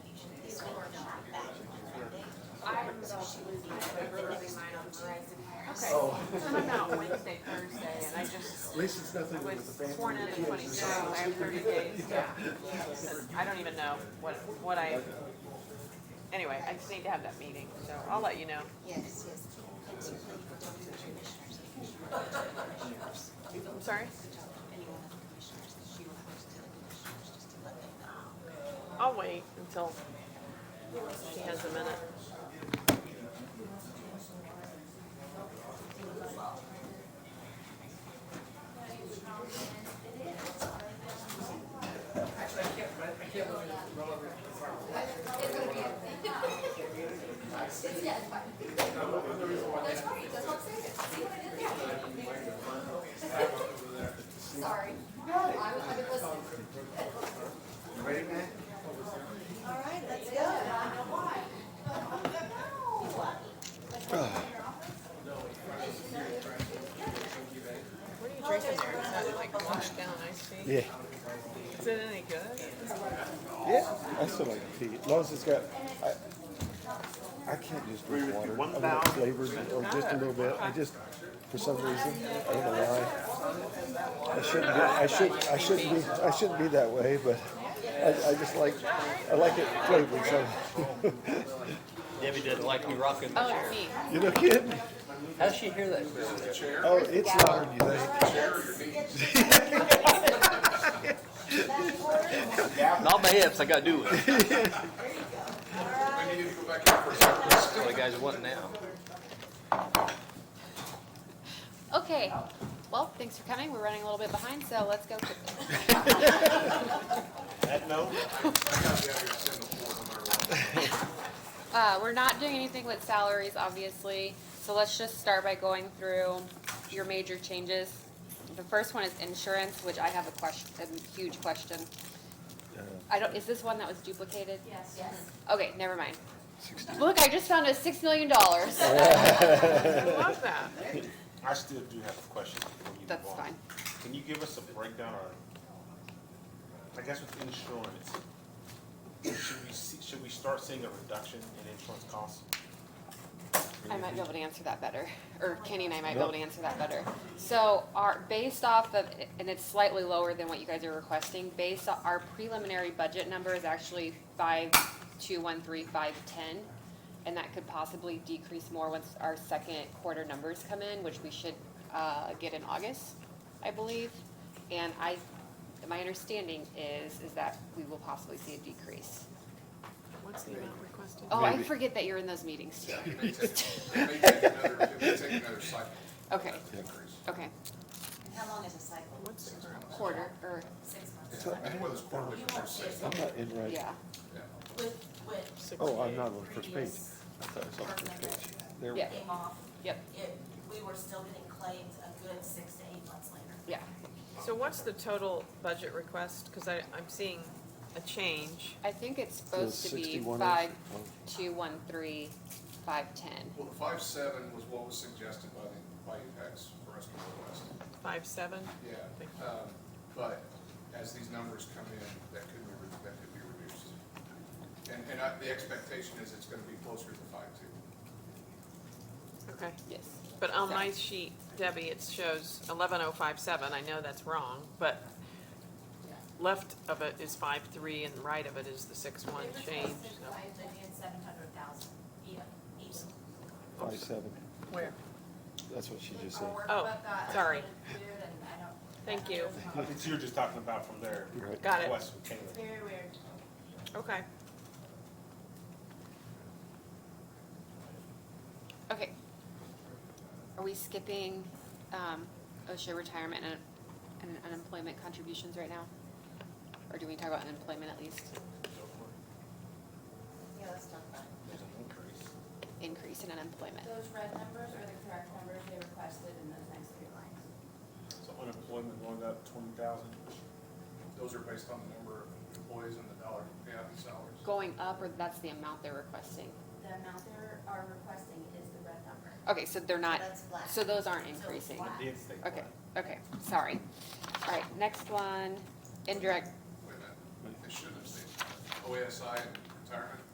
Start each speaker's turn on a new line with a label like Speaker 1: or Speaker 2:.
Speaker 1: So,
Speaker 2: I'm out Wednesday, Thursday, and I just
Speaker 1: at least it's nothing
Speaker 2: was
Speaker 1: with the
Speaker 2: sworn
Speaker 1: family
Speaker 2: in
Speaker 1: and
Speaker 2: the
Speaker 1: kids or
Speaker 2: twenty-two, I have
Speaker 1: something.
Speaker 2: thirty days, yeah. Because I don't even know what, what I, anyway, I just need to have that meeting, so I'll let you know.
Speaker 3: Yes, yes. And certainly if we don't do commissioners, if you don't do commissioners,
Speaker 2: I'm sorry?
Speaker 3: if you don't do any one of the commissioners, she will have to tell the commissioners just to let them know.
Speaker 2: I'll wait until she has a minute.
Speaker 4: That's right, that's what I'm saying. See what I did there? Sorry. No, I was, I was listening.
Speaker 1: Ready, man?
Speaker 4: All right, let's go. I know why.
Speaker 2: What are you drinking there? It sounded like washed down iced tea.
Speaker 5: Yeah,
Speaker 2: Is it any good?
Speaker 5: yeah, I still like tea, as long as it's got, I, I can't just drink water. I want it flavored or just a little bit, I just, for some reason, I don't know why. I shouldn't be, I should, I shouldn't be, I shouldn't be that way, but I, I just like, I like it flavored, so,
Speaker 6: Debbie doesn't like me rocking the chair.
Speaker 2: me.
Speaker 5: you know, kidding?
Speaker 6: How does she hear that? from?
Speaker 5: Oh, it's louder than you think.
Speaker 6: Not my hips, I gotta do it. That's what you guys want now.
Speaker 4: Okay, well, thanks for coming. We're running a little bit behind, so let's go quickly.
Speaker 5: That note?
Speaker 4: Uh, we're not doing anything with salaries, obviously, so let's just start by going through your major changes. The first one is insurance, which I have a question, a huge question. I don't, is this one that was duplicated?
Speaker 3: Yes. Yes.
Speaker 4: Okay, never mind. Look, I just found a six million dollars.
Speaker 2: I love that.
Speaker 7: I still do have a question before you
Speaker 4: That's
Speaker 7: move on.
Speaker 4: fine.
Speaker 7: Can you give us a breakdown on, I guess with insurance, should we see, should we start seeing a reduction in insurance costs?
Speaker 4: I might be able to answer that better, or Kenny and I might be able to answer that better. So our, based off of, and it's slightly lower than what you guys are requesting, based on, our preliminary budget number is actually five, two, one, three, five, ten. And that could possibly decrease more once our second quarter numbers come in, which we should, uh, get in August, I believe. And I, my understanding is, is that we will possibly see a decrease.
Speaker 2: What's the amount requested?
Speaker 4: Oh, I forget that you're in those meetings too.
Speaker 8: Yeah, it may take, it may take another, it may take another cycle.
Speaker 4: Okay,
Speaker 8: to increase.
Speaker 4: okay,
Speaker 3: And how long is a cycle?
Speaker 2: What's the amount?
Speaker 4: quarter, or,
Speaker 3: Six months.
Speaker 8: I think whether it's quarterly
Speaker 3: You
Speaker 8: or
Speaker 3: won't see
Speaker 8: six.
Speaker 3: it.
Speaker 5: I'm not in right,
Speaker 4: yeah.
Speaker 8: yeah.
Speaker 3: With, with
Speaker 2: Six
Speaker 5: oh, I'm
Speaker 2: days.
Speaker 5: not on the first page,
Speaker 3: previous
Speaker 5: I thought I saw the first page, there, we
Speaker 4: Yeah.
Speaker 5: go.
Speaker 3: came off,
Speaker 4: Yep,
Speaker 3: it, we were still getting claims a good six to eight months later.
Speaker 4: yeah.
Speaker 2: So what's the total budget request? Because I, I'm seeing a change.
Speaker 4: I think it's supposed to be
Speaker 5: 61 is-
Speaker 4: five,
Speaker 5: well-
Speaker 4: two, one, three, five, ten.
Speaker 8: Well, the five seven was what was suggested by the, by UPEX for us to request.
Speaker 2: Five, seven? Thank
Speaker 8: Yeah, um, but as these numbers come in, that could be, re- that could be reduced. And, and I, the expectation is it's gonna be closer to five two.
Speaker 2: Okay.
Speaker 4: Yes.
Speaker 2: But on my sheet, Debbie, it shows eleven oh five seven. I know that's wrong, but left of it is five, three, and right of it is the six, one change. so-
Speaker 3: Five million, seven hundred thousand, yeah, each.
Speaker 5: five, seven,
Speaker 2: Where?
Speaker 5: that's what she just
Speaker 3: Our
Speaker 5: said.
Speaker 2: Oh,
Speaker 3: workbook got
Speaker 2: sorry.
Speaker 3: included and I don't-
Speaker 2: Thank you.
Speaker 7: Okay, so you're just talking about from their
Speaker 5: Right.
Speaker 2: Got it.
Speaker 7: request with Taylor.
Speaker 3: It's very weird.
Speaker 2: Okay.
Speaker 4: Okay. Are we skipping, um, OSHA retirement and, and unemployment contributions right now? Or do we talk about unemployment at least,
Speaker 3: Yeah, let's talk about it.
Speaker 7: There's an increase.
Speaker 4: increase in unemployment?
Speaker 3: Those red numbers are the correct numbers they requested in those next three lines.
Speaker 7: So unemployment going up twenty thousand?
Speaker 8: Those are based on the number of employees and the dollar payout in salaries.
Speaker 4: Going up, or that's the amount they're requesting?
Speaker 3: The amount they are requesting is the red number.
Speaker 4: Okay, so they're not,
Speaker 3: That's flat.
Speaker 4: so those aren't
Speaker 3: So it's
Speaker 4: increasing?
Speaker 3: flat.
Speaker 7: Did stay
Speaker 4: Okay,
Speaker 7: flat.
Speaker 4: okay, sorry. All right, next one, indirect
Speaker 8: Wait a minute, they should have stayed. OASI and